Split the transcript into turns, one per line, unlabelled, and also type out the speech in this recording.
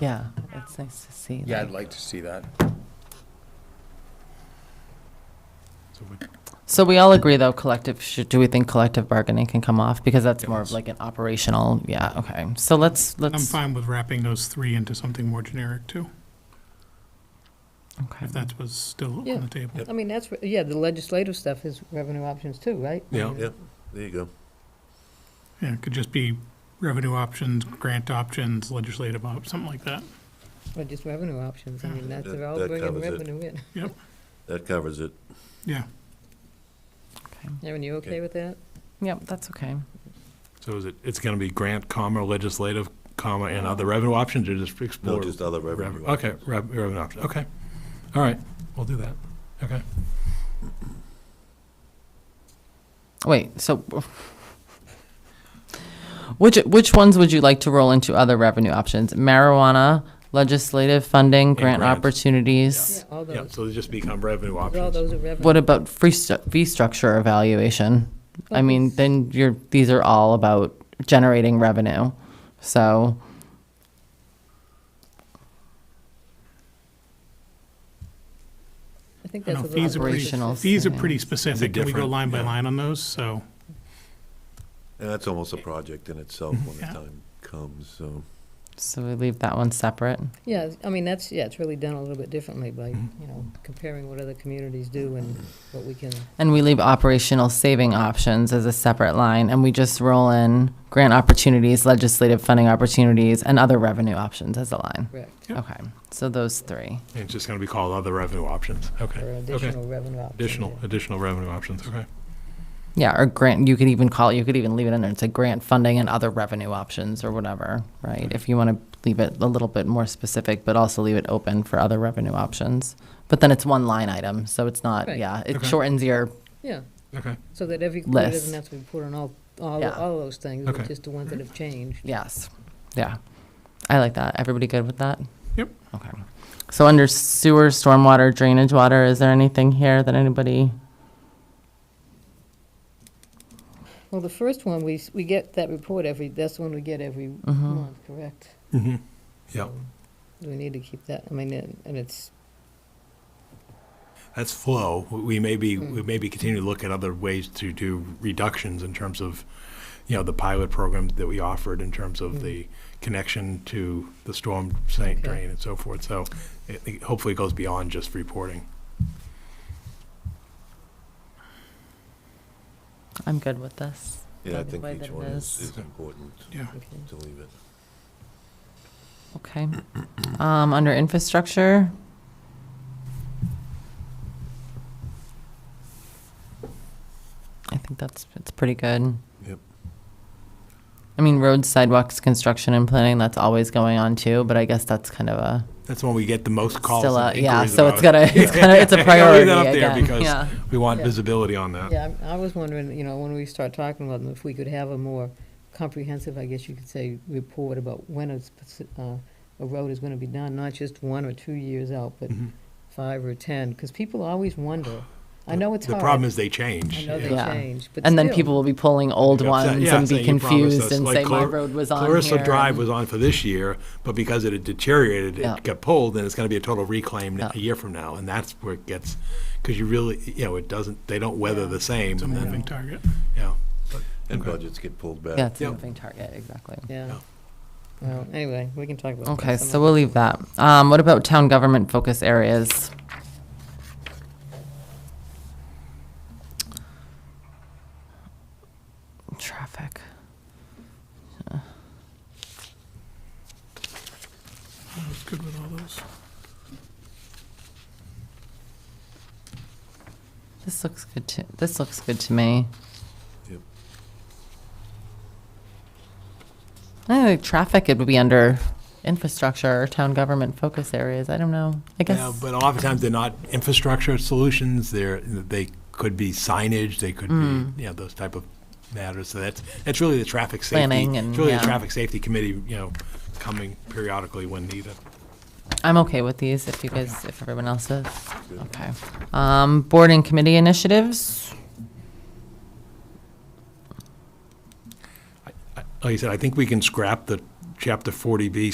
Yeah, it's nice to see.
Yeah,
like-
I'd like to see that.
So we-
So we all agree though, collective, should, do we think collective bargaining can come off? Because that's more of
Yes.
like an operational, yeah, okay. So let's,
I'm
let's.
fine with wrapping those three into something more generic too,
okay.
if that was still
Yeah.
on the table.
I mean, that's, re- yeah, the legislative stuff is revenue options too, right?
Yeah, yeah, there you go.
Yeah, it could just be revenue options, grant options, legislative op, something like that.
Or just revenue options, I mean, that's, they're all
That- that
bringing
covers it.
revenue in.
That covers it.
Yeah,
okay.
Erin, you okay
Okay.
with that?
Yep, that's okay.
So is it, it's going to be grant, comma, legislative, comma, and other
Uh-huh.
revenue options, or just explore?
No, just other
rev-
revenue.
Okay, rev- revenue options, okay. All right, we'll do that, okay.
Wait, so. Which, which ones would you like to roll into other revenue options? Marijuana, legislative funding, grant
grants.
opportunities?
All
Yeah,
those,
so they just become revenue
all
options.
those are revenue.
What about free stu- fee structure evaluation? I
Well,
mean,
it's-
then you're, these are all about generating revenue, so.
I think
I
that's
know,
a
fees are
little.
pretty,
Operational
fees are
savings.
pretty
They're
specific, and we go
different,
line by
yeah.
line on those, so,
And that's almost a project in itself when the
Yeah.
time comes, so.
So we leave that one separate.
Yeah, I mean, that's, yeah, it's really done a little bit differently by,
Mm-hmm.
you know, comparing what other communities do and what we can,
And we leave operational saving options as a separate line, and we just roll in grant opportunities, legislative funding opportunities, and other revenue options as a line.
correct,
Yep.
Okay, so those three.
It's just going to be called other revenue options, okay.
or
Okay.
additional revenue options.
Additional,
yeah.
additional revenue options, okay.
Yeah, or grant, you could even call it, you could even leave it in there, it's a grant funding and other revenue options or whatever, right? If you want to leave it a little bit more specific, but also leave it open for other revenue options. But then it's one line item, so it's not,
Right.
yeah, it
Okay.
shortens your,
Yeah,
Okay,
so that every community
Less.
doesn't have to report on all, all,
Yeah.
all those things, but
Okay. Mm-hmm.
just the ones that have changed.
yes, yeah. I like that. Everybody good with that?
Yep.
Okay. So under sewer, stormwater, drainage water, is there anything here that anybody?
Well, the first one, we, s- we get that report every, that's the one we get every month, correct?
mm-hmm, yeah,
Do we need to keep that? I mean, and and it's,
that's flow. We- We may be, we may be continuing to look at other ways to do reductions in terms of, you know, the pilot program that we offered in terms
Mm.
of the connection to the storm
Okay.
site drain and so forth. So it- it hopefully goes beyond just reporting.
I'm good with this.
Yeah, I
Like the
think
way
each
that it
one is
is.
is important
yeah.
okay.
to leave it.
Okay. Um, under infrastructure? I think that's, it's pretty good.
Yep.
I mean, roads, sidewalks, construction and planning, that's always going on too, but I guess that's kind of a,
That's when we get the most calls
still a,
and
yeah,
inquiries
so it's
about
gonna,
it.
it's gonna, it's a
Yeah,
priority
Leave that up there
again,
because
yeah.
we want
Yeah.
visibility on that.
Yeah, I I was wondering, you know, when we start talking about them, if we could have a more comprehensive, I guess you could say, report about when a, speci- uh, a road is gonna be done, not just one or two years out, but
Mhm.
five or ten, because people always wonder. I know it's
The
hard.
problem is they change.
I know they
Yeah.
change, but
And then
still,
people will be pulling old
Yeah, so-
ones
yeah,
and
so
be
you promised
confused
us,
and
like,
say, my
Clar-
road was on here.
Clarissa Drive
and-
was on for this year, but because it had deteriorated,
Yeah.
it got pulled, and it's gonna be a total reclaim
Yeah.
a year from now, and that's where it gets, because you really, you know, it doesn't, they don't weather the same.
It's a
and then,
moving target.
Yeah.
And
Okay.
budgets get pulled back.
Yeah, it's a
Yep.
moving target, exactly.
Yeah. Well, anyway, we can talk about that.
Okay,
some
so
other-
we'll leave that. Um, what about town government focus areas? Traffic.
I was good with all those.
This looks good to, this looks good to me.
Yep.
I think traffic, it would be under infrastructure or town government focus areas. I don't know. I
Yeah,
guess,
but oftentimes they're not infrastructure solutions, they're, they could be signage, they could
Mm.
be, you know, those type of matters, so that's, that's really the traffic safety.
Planning and-
It's really the
yeah.
traffic safety committee, you know, coming periodically when needed.
I'm okay with these if you guys, if everyone else is. Okay. Um, board and committee initiatives?
I- Like I said, I think we can scrap the chapter forty B